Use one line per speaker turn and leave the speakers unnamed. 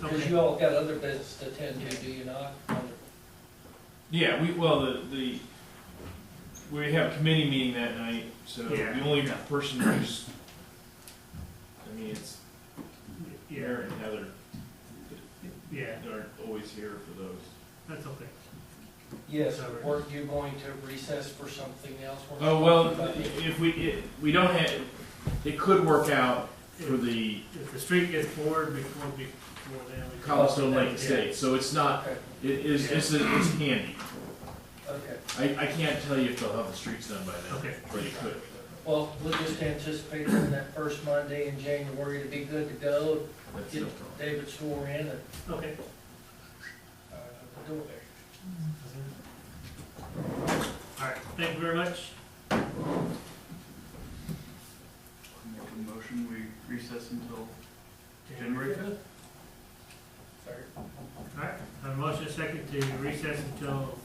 Because you all got other business to attend to, do you not?
Yeah, we, well, the, the, we have a committee meeting that night, so
Yeah.
the only person who's, I mean, it's
Yeah,
Mayor and Heather
yeah,
that aren't always here for those.
that's okay.
Yes, weren't you going to recess for something else? Weren't you
Oh, well,
talking about it?
if we, it- we don't have, it could work out for the
If the street gets bored before, before then, we.
Cobblestone Lake
Yeah.
Estate, so it's not,
Okay,
it is, it's, it's handy.
okay.
I, I can't tell you if they'll have the streets done by then,
Okay,
but it could.
Well, we'll just anticipate on that first Monday in January to be good to go,
That's no
get
problem.
David swore in and,
okay.
uh, do it.
All right, thank you very much.
Make a motion, we recess until January fifth?
Sorry.
All right, I have a motion second to recess until